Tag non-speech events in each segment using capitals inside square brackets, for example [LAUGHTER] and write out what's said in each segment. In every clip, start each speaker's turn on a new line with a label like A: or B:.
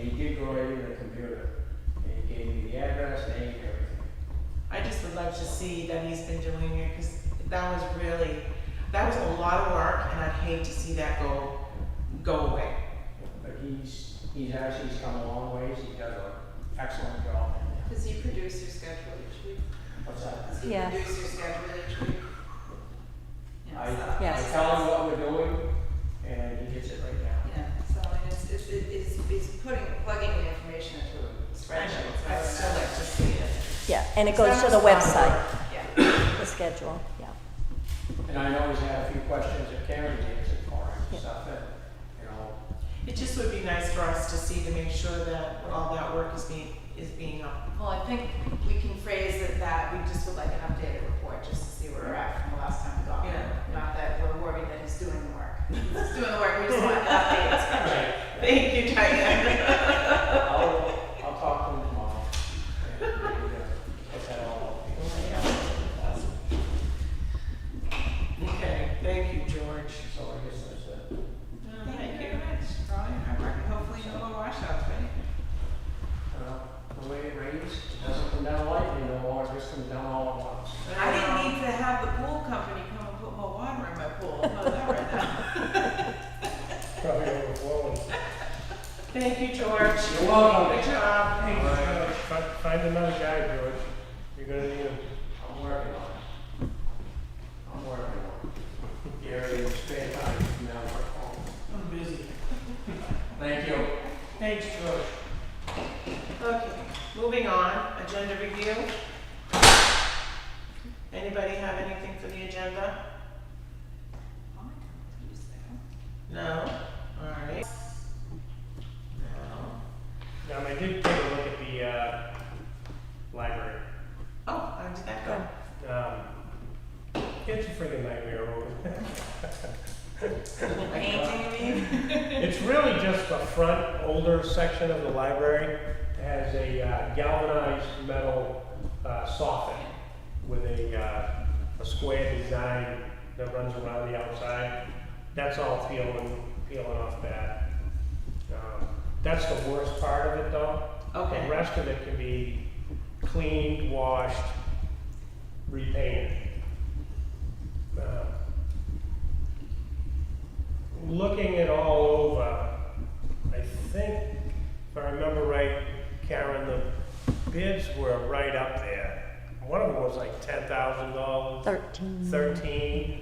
A: Android and a computer. And he gave me the address, name, everything.
B: I just would love to see that he's been doing it, because that was really, that was a lot of work, and I'd hate to see that go, go away.
A: But he's, he's actually, he's come a long ways, he does an excellent job in there.
C: Does he produce your schedule each week?
A: What's that?
C: Does he
D: Yes.
C: produce your schedule each week?
A: I,
C: Yeah, so-
A: I
D: Yes.
A: tell him what we're doing, and he gets it right now.
C: Yeah, so and it's, it's, it- it's, it's putting, plugging the information into a
B: I
C: spreadsheet.
B: know,
C: so
B: I'd
C: it's
B: still
C: not-
B: like to see it.
D: Yeah, and it
C: it's
D: goes
C: not
D: to the
C: just lot
D: website,
C: of work, Yeah.
D: the schedule, yeah.
A: And I know he's had a few questions that Karen answered for him and
D: Yeah.
A: stuff, and, you know,
B: It just would be nice for us to see to make sure that all that work is being, is being up.
C: Well, I think we can phrase it that we just would like an updated report just to see where we're at from the last time we got one.
B: Yeah.
C: Not that we're worried that he's doing the work. He's doing the work, we just want an updated spreadsheet.
B: Thank you, Diane.
A: I'll, I'll talk to him tomorrow. and, uh, Get that all up.
B: Okay, thank you, George.
A: So I guess that's it.
B: Thank you very much for all your hard work, and hopefully no more washouts, right?
A: Well, the way it rains, it doesn't come down lightly no more, it just comes down all at once.
C: I didn't need to have the pool company come and put more water in my pool. How's that right now?
A: Probably overflowing.
B: Thank you, George.
A: You're welcome.
B: Good job.
E: Fi- Find another guy, George. You're gonna need him.
A: I'm working on it. I'm working on it. Gary, it's spare time, you now work home.
B: I'm busy.
A: Thank you.
B: Thanks, George. Okay, moving on, agenda review. Anybody have anything for the agenda? No? All right. No.
E: Um, I did take a look at the, uh, library.
B: Oh, how did that go?
E: Um, it's a friggin' nightmare. over
C: Painting, you mean?
E: there. [LAUGHS] It's really just the front older section of the library has a uh, galvanized metal, uh, soffit with a, uh, a square design that runs around the outside. That's all peeling, peeling off that. Um, That's the worst part of it though. The
B: Okay,
E: rest of it can be cleaned, washed, repainted. Uh, Looking it all over, I think, if I remember right, Karen, the bids were right up there. One of them was like ten thousand dollars,
D: Thirteen.
E: thirteen,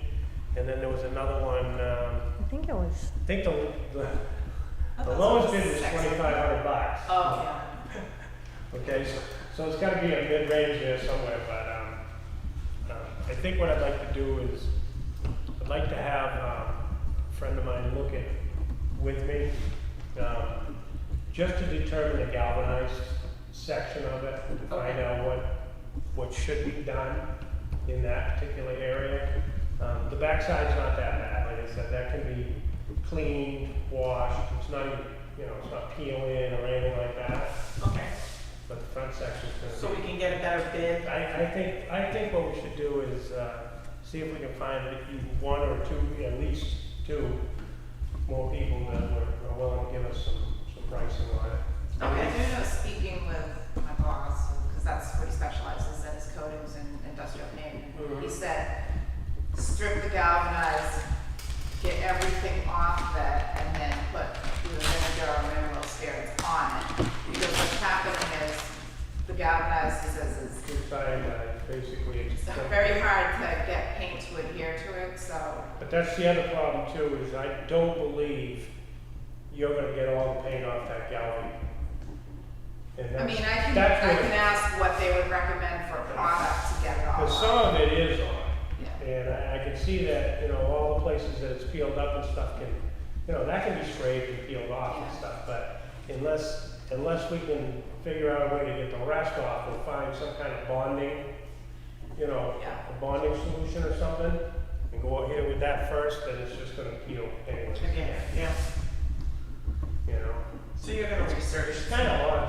E: and then there was another one, um,
D: I think it was,
E: I think the, the,
C: I
E: the
C: thought
E: lowest
C: it
E: bid was
C: sexy.
E: twenty-five hundred bucks.
C: Oh, yeah.
E: Okay, so, so it's gotta be a mid-range there somewhere, but, um, uh, I think what I'd like to do is, I'd like to have, um, a friend of mine look at, with me, um, just to determine the galvanized section of it, to find out what, what should be done in that particular area. Um, the backside's not that bad, like I said, that can be cleaned, washed, it's not, even you know, it's not peeling or anything like that.
B: okay,
E: But the front section's
B: so
E: gonna
B: we can get a better bid.
E: be, I, I think, I think what we should do is, uh, see if we can find at least one or two, at least two more people that were, are willing to give us some, some pricing on it.
C: I
B: Okay,
C: do know speaking with my boss, because that's what he specializes in, is coatings and industrial paint.
E: Mm-hmm.
C: He said, strip the galvanized, get everything off that, and then put either vinegar or mineral spirits on it. Because what's happening is the galvanized, he says, is
E: We find, uh, basically, it's,
C: it's very hard to get paint to adhere to it, so
E: but that's the other problem too, is I don't believe you're gonna get all the paint off that gallery. And
C: I
E: that's,
C: mean, I can,
E: that's
C: I
E: what-
C: can ask what they would recommend for a product to get it all
E: cause
C: off.
E: some of it is on.
C: Yeah.
E: And I, I can see that, you know, all the places that it's peeled up and stuff can, you know, that can be sprayed and peeled off and stuff, but unless, unless we can figure out a way to get the rest off and find some kind of bonding, you know,
C: Yeah.
E: a bonding solution or something, and go out here with that first, then it's just gonna peel anyway,
B: okay, yeah,
E: you know?
B: so you're gonna research
E: It's kinda hard